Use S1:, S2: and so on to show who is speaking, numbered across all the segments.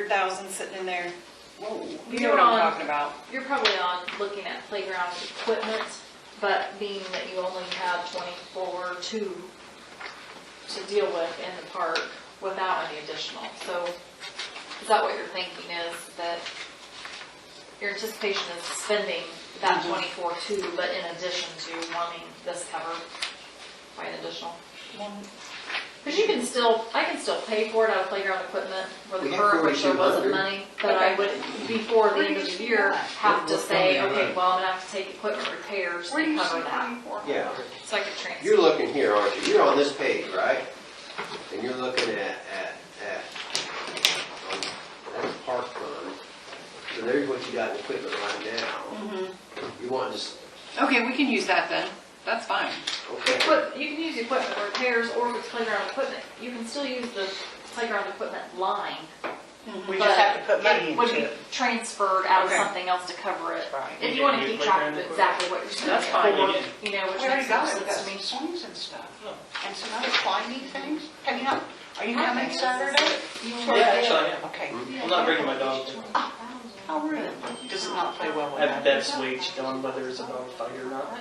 S1: thousand sitting in there.
S2: You're
S3: You know what I'm
S2: on-
S3: talking about.
S2: You're probably on looking at playground equipment, but being that you only have twenty-four two to deal with in the park without any additional, so is that what you're thinking is that your anticipation is spending that twenty-four two, but in addition to wanting this covered by an additional? Because you can still, I can still pay for it out of playground equipment for the
S4: We have
S2: current, which there wasn't
S4: 4,200.
S2: money, but I would, before the end of the year, have to
S4: What's
S2: say,
S4: coming
S2: okay,
S4: out?
S2: well, I'm gonna have to take equipment repairs to
S5: Where you
S2: cover
S5: see
S2: that,
S5: twenty-four?
S4: Yeah,
S2: so I could transfer.
S4: you're looking here, aren't you? You're on this page, right? And you're looking at, at, at, um, that's park fund. So there's what you got in equipment right now.
S5: Mm-hmm.
S4: You want this,
S1: Okay, we can use that then. That's fine.
S4: okay,
S2: But you can use equipment repairs or with playground equipment, you can still use the playground equipment line.
S5: We just have to put money
S2: Would
S5: into
S2: be
S5: it.
S2: transferred out of
S1: Okay.
S2: something else to cover it,
S5: Right.
S2: if you wanna keep track of exactly what you're spending.
S1: That's fine.
S2: or, You know, which
S5: We already
S2: makes more
S5: got it,
S2: sense
S5: that's
S2: to me.
S5: some swings and stuff, and some other climbing things. Have you, not- are you having Saturday?
S2: You wanna-
S6: Yeah, actually, I am.
S5: Okay.
S6: I'm not bringing my dog. to-
S5: How rude. Does it not play well
S6: I
S5: with
S6: have
S5: that?
S6: Bev's wage on whether it's a dog fight or not.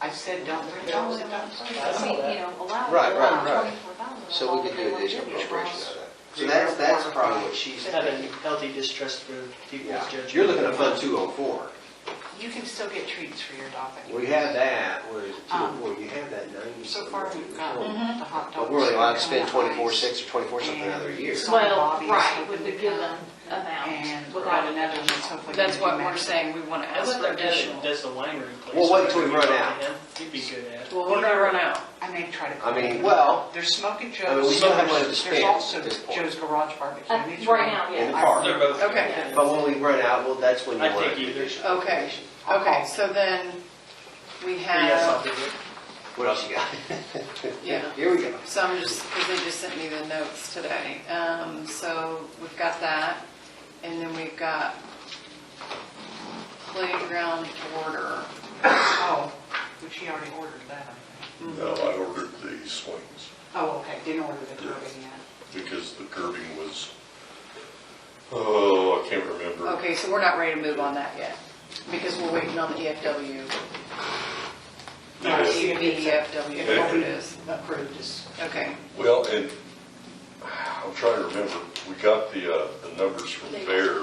S5: I said, don't bring dogs in.
S6: I
S2: See,
S6: know
S2: you
S6: that.
S2: know, allow.
S4: Right, right, right.
S2: $24,000
S4: so we can do additional appropriation out of that. So that's, that's probably what she's
S6: Had a
S4: thinking.
S6: healthy distrust for people's
S4: Yeah,
S6: judgment.
S4: you're looking at fund two oh four.
S5: You can still get treats for your dog. I think.
S4: We have that, was two oh
S5: Um,
S4: four, you have that ninety.
S5: So far, we've got the
S4: Mhm.
S5: hot dogs.
S4: But we're only allowed to spend
S5: and
S4: twenty-four
S5: ice,
S4: six or twenty-four something another year.
S2: Well,
S5: Bobby is
S2: right,
S5: hoping
S2: with the
S5: to
S2: given
S5: come,
S2: amount, without
S5: And without
S2: another.
S5: another one, so if we
S1: That's
S5: can
S1: what
S5: do
S1: we're
S5: max-
S1: saying, we want to
S6: I
S1: ask
S6: looked
S1: for
S6: at that,
S1: additional.
S6: does the winery place.
S4: Well, wait till we
S6: Whatever
S4: run
S6: you
S4: out.
S6: want him, He'd be good at.
S1: Well, we're gonna run out.
S5: I may try to.
S4: I mean, well,
S5: There's smoking Joe's.
S4: I mean, we still have money to
S5: There's
S4: spend
S5: also
S4: at this point.
S5: Joe's Garage Barbecue.
S2: Uh,
S5: These
S2: Right
S5: are-
S2: now,
S4: In the
S2: yeah.
S4: park.
S6: They're both.
S1: Okay.
S4: But when we run out, well, that's when you
S6: I
S4: want.
S6: take
S4: it.
S6: either.
S1: Okay, okay, so then we
S6: Yes, I'll
S1: have,
S6: do it.
S4: What else you got?
S1: Yeah.
S4: Here we go.
S1: so I'm just, because they just sent me the notes today. Um, so we've got that, and then we've got playground order.
S5: Oh, which he already ordered that, I think.
S7: No, I ordered the swings
S5: Oh, okay, didn't order the curving yet.
S7: because the curbing was, oh, I can't remember.
S1: Okay, so we're not ready to move on that yet, because we're waiting on the E EFW,
S7: Yeah.
S5: I see.
S1: EFW, E whatever it is.
S5: Approved is.
S1: Okay,
S7: Well, and I'm trying to remember, we got the, uh, the numbers from Bear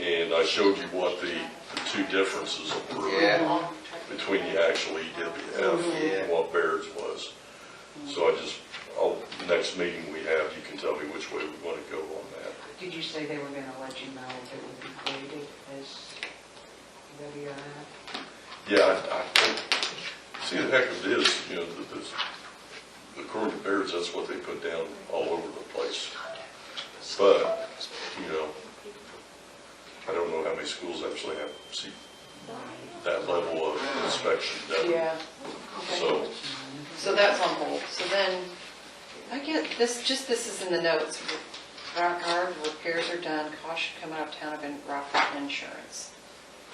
S7: and I showed you what the, the two differences were
S4: Yeah.
S7: between the actual EWF and what Baird's was. So I just, I'll, next meeting we have, you can tell me which way we want to go on that.
S5: Did you say they were gonna let you know if it would be created as WRF?
S7: Yeah, I, I think, see, the heck of it is, you know, that this, according to Baird's, that's what they put down all over the place. But, you know, I don't know how many schools actually have, see, that level of inspection done.
S1: yeah.
S7: So,
S1: So that's on hold. So then, I get, this, just this is in the notes. Rock hard, repairs are done, costs should come out of town of in- Rockford insurance.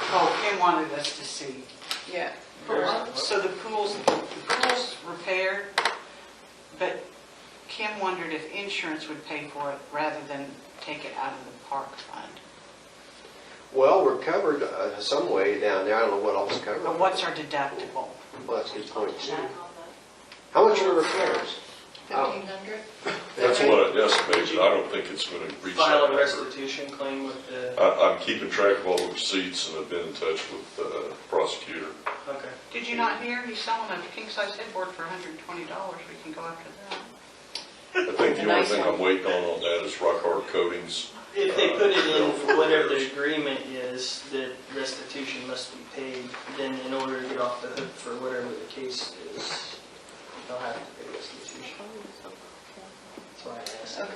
S5: Oh, they wanted us to see.
S1: Yeah,
S5: So the pool's, the pool's repaired, but Kim wondered if insurance would pay for it rather than take it out of the park fund.
S4: Well, we're covered uh, some way down there. I don't know what all's covered.
S5: But what's our deductible?
S4: Well, that's a good point too. How much are repairs? Oh.
S1: fifteen hundred?
S7: that's what I estimated, I don't think it's gonna reach
S6: File
S7: that
S6: a
S7: number.
S6: restitution claim with the,
S7: I, I'm keeping track of all the receipts and I've been in touch with the prosecutor.
S6: okay.
S5: Did you not hear? He's selling a king-size headboard for $120. We can go after that.
S7: I think the only
S1: Nice
S7: thing
S1: one.
S7: I'm waiting on on that is rock hard coatings.
S6: If they put it in for whatever the agreement is, that restitution must be paid, then in order to get off the hook for whatever the case is, they'll have to pay restitution. That's why I asked.
S1: Okay.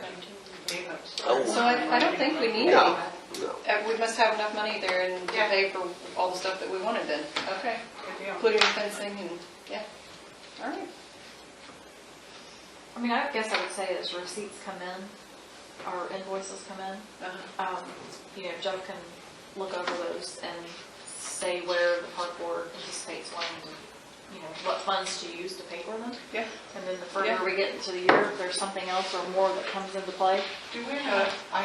S5: Gave us-
S1: So I, I don't think we need any.
S4: No.
S1: Uh, We must have enough money there and to
S5: Yeah.
S1: pay for all the stuff that we wanted then. Okay.
S5: Good deal.
S1: Including fencing and, yeah. All right.
S2: I mean, I guess I would say as receipts come in, or invoices come in,
S1: Uh-huh.
S2: um, you know, Jeff can look over those and say where the park board anticipates wanting to, you know, what funds to use to pay for them.
S1: Yeah.
S2: And then the
S1: Yeah.
S2: further we get into the year, if there's something else or more that comes into play,
S5: Do we know,